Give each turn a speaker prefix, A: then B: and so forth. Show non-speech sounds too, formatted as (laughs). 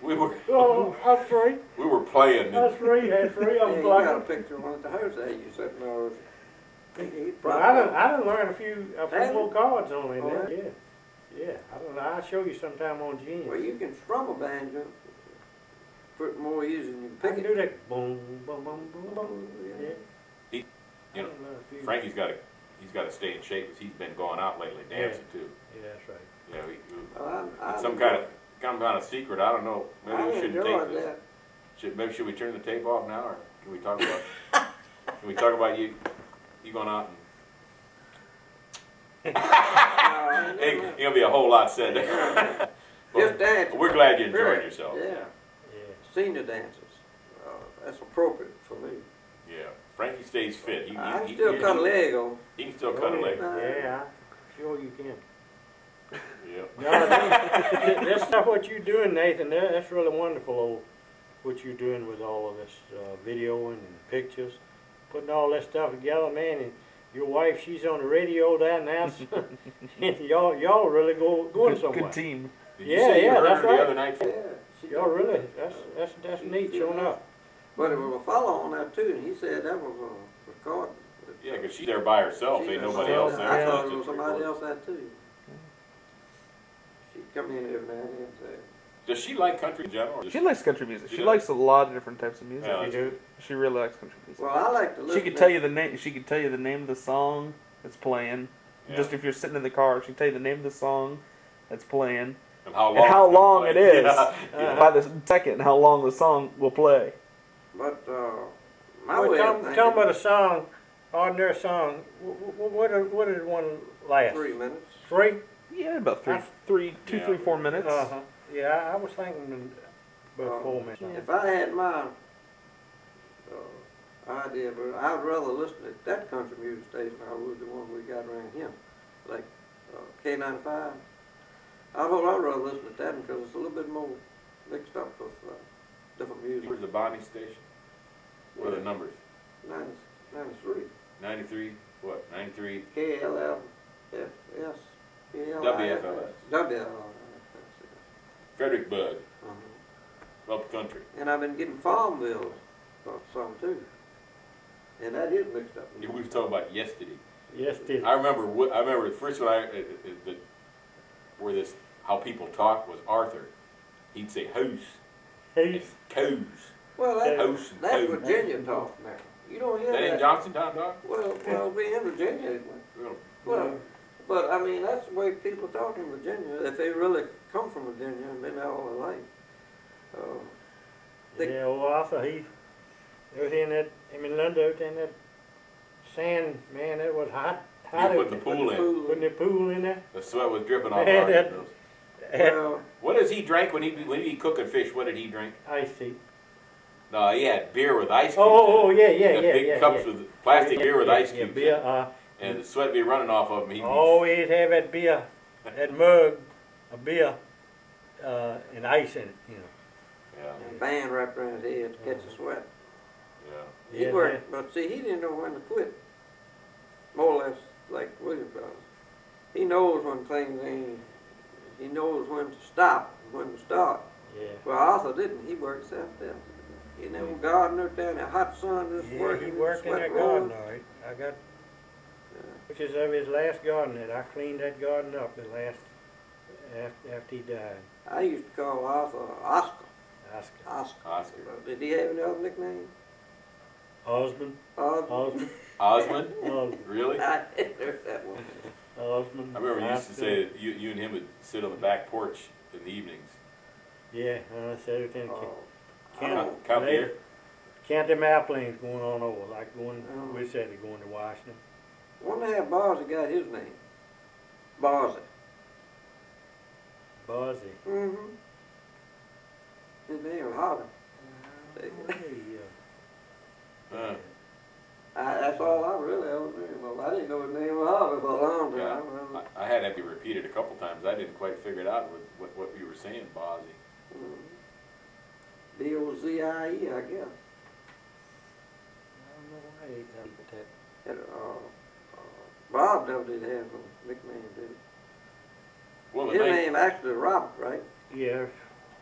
A: We were,
B: Well, us three,
A: we were playing.
B: us three had three of
C: (laughs) Yeah,
B: them
C: you got a
B: plugged.
C: picture of one of the Jose, you sitting there. He- he
B: But I done,
C: probably-
B: I done learned a few, a few
C: Really?
B: little cards on it, now,
C: Oh,
B: yeah, yeah, I don't know, I'll show you sometime on
C: Well,
B: Genius.
C: you can struggle band you, put more ears in your
B: I can do
C: picket.
B: that, boom, boom, boom, boom, boom, yeah.
A: He-
B: I
A: you know,
B: done learned a few-
A: Frankie's got to, he's got to stay in shape because he's been going out lately dancing too.
B: Yeah, that's right.
A: You know, he-
C: Well, I- I-
A: some kind of, some kind of secret. I don't know. Maybe
C: I
A: we shouldn't
C: enjoyed
A: take this.
C: that.
A: Should, maybe should we turn the tape off now, or can we talk
B: (laughs)
A: about? can we talk about you? You going out? (laughs)
C: Uh,
A: And, hey, it'll be a whole lot said. there.
C: Just
A: (laughs) but
C: dance.
A: we're glad you enjoyed
C: Period.
A: yourself.
C: Yeah,
B: Yeah.
C: senior dances, uh, that's appropriate for me.
A: Yeah. Frankie stays fit. He, he,
C: I
A: he,
C: still
A: he-
C: cut a leg off.
A: he can still cut a leg.
B: Yeah, sure you can.
A: Yeah.
B: No, that- (laughs) that's not what you're doing, Nathan. That- That's really wonderful, old, what you're doing with all of this uh, videoing and pictures, putting all that stuff together, man. And your wife, she's on the radio down now. so- (laughs) and y'all, y'all really go going
D: good,
B: somewhere.
D: good team.
A: Did
B: Yeah,
A: you say
B: yeah,
A: you heard
B: that's
A: her
B: right.
A: the other night?
C: Yeah. she-
B: Y'all really, that's that's that's neat. Showing up.
C: But it was a fellow on that too, and he said that was a record.
A: Yeah, because she's there by herself.
C: She
A: Ain't
C: was
A: nobody
C: on
A: else
C: that.
A: there.
C: I thought
A: It's
C: it was
A: just
C: somebody
A: recorded.
C: else that too. She'd come in every now and then and say,
A: Does she like country in general? or does
D: She likes country music.
A: She
D: She
A: does.
D: likes a lot of different types of music.
A: Yeah.
B: You do.
D: She really likes country music.
C: well, I like to listen.
D: She could tell you the name. She could tell you the name of the song that's playing.
A: Yeah.
D: Just if you're sitting in the car, she could tell you the name of the song that's playing
A: and how long?
D: and how
A: it's been
D: long it
A: played.
D: is
A: Yeah, (laughs) yeah.
D: by the second, how long the song will play.
C: But uh, my
B: Well,
C: way
B: tell,
C: of
B: me-
C: thinking,
B: tell me about a song, ordinary song. What what, did- what did one last?
C: three minutes.
B: Three.
D: Yeah, about three,
B: Huh?
D: three, two,
A: Yeah.
D: three, four minutes.
B: Uh-huh. Yeah, I- I was thinking about
C: Uh,
B: four minutes.
C: If I had my uh, idea, but I'd rather listen to that country music station than I would the one we got around here, like uh, K95. I would I'd rather listen to that because it's a little bit more mixed up with uh, different music.
A: Where's the Bonnie station? What are the numbers?
C: 90, 93.
A: 93, what, 93?
C: KLLFS.
A: WFLS.
C: WFLS.
A: Frederick Bug,
C: uh
A: up country.
C: And I've been getting farm bills for some too. And that is mixed up.
A: We was talking about yesterday.
B: Yes, did.
A: I remember, wh- I remember the first one I, uh, uh, the, where this, how people talk was Arthur. He'd say hoose and
B: He's,
A: coos.
C: Well, that,
A: House and
C: that's
A: home.
C: Virginia talk now. You don't hear
A: That ain't
C: that.
A: Johnstown, Doc?
C: Well, well, we in Virginia. it went-
A: Well,
C: Well, but I mean, that's the way people talk in Virginia, if they really come from Virginia and been there all their life. Uh, They-
B: yeah, well, Arthur, he, everything that, him and Linda, everything that sand, man, that was hot, hot.
A: You put the
B: out
A: pool in.
B: there. Putting the pool in there.
A: The sweat was dripping off
B: Yeah,
A: Arthur's
B: that-
A: nose.
C: Well,
A: What does he drink when he, when he cooking fish? What did he drink?
B: Uh, Ice tea.
A: No, he had beer with ice cubes.
B: Oh, oh, oh,
A: in it.
B: yeah, yeah,
A: The
B: yeah,
A: big
B: yeah.
A: cups
B: yeah.
A: with plastic beer with
B: Yeah,
A: ice
B: yeah,
A: cubes. in
B: beer, Oh.
A: it.
B: uh,
A: And the sweat be running off of him. He'd be-
B: always have that beer, that mug of beer, uh, and ice in it, you know.
A: Yeah,
C: and band wrapped around his head to catch the sweat.
A: yeah.
C: He
B: Yeah,
C: worked, but see, he didn't know when to quit. More or less like William does. He knows when things ain't, he knows when to stop, and when to start.
B: Yeah, yeah.
C: Well, Arthur didn't. He worked out there. You know, garden up there in the hot sun, just
B: Yeah,
C: working.
B: he
C: and
B: worked in
C: sweat
B: that
C: rolling.
B: garden, all right. I got pictures of his last garden, and I cleaned that garden up the last, after, after he died.
C: I used to call Arthur Oscar.
B: Oscar.
C: Oscar.
A: Oscar.
C: Did he have any other nickname?
B: Osmond,
C: Oscar.
B: Osmond,
A: Osmond?
B: Osmond,
A: Really? I
C: (laughs) I heard that one.
B: Osmond.
A: remember you used to
B: Oscar.
A: say that you, you and him would sit on the back porch in the evenings.
B: Yeah, and I said everything.
C: Oh,
B: Count,
A: Count- count beer?
B: Count them airplanes going on over, like going,
C: Oh.
B: we said they're going to Washington.
C: One of that Barzy got his name. Barzy.
B: Buzzy.
C: Mm-hmm. His name was Holly.
B: Hey, uh,
A: Huh.
C: I, that's all I really ever knew. Well, I didn't know his name was Holly for a long time.
A: Yeah.
C: I
A: I,
C: was-
A: I had to be repeated a couple times. I didn't quite figure it out with what, what you were saying, Bozzy.
C: mm. B-O-Z-I-E, I guess.
B: I don't know why they done that.
C: And, uh, uh, Bob never did have a nickname, did
A: Well,
C: he?
A: the
C: His
A: night,
C: name actually Robert, right?
B: Yeah,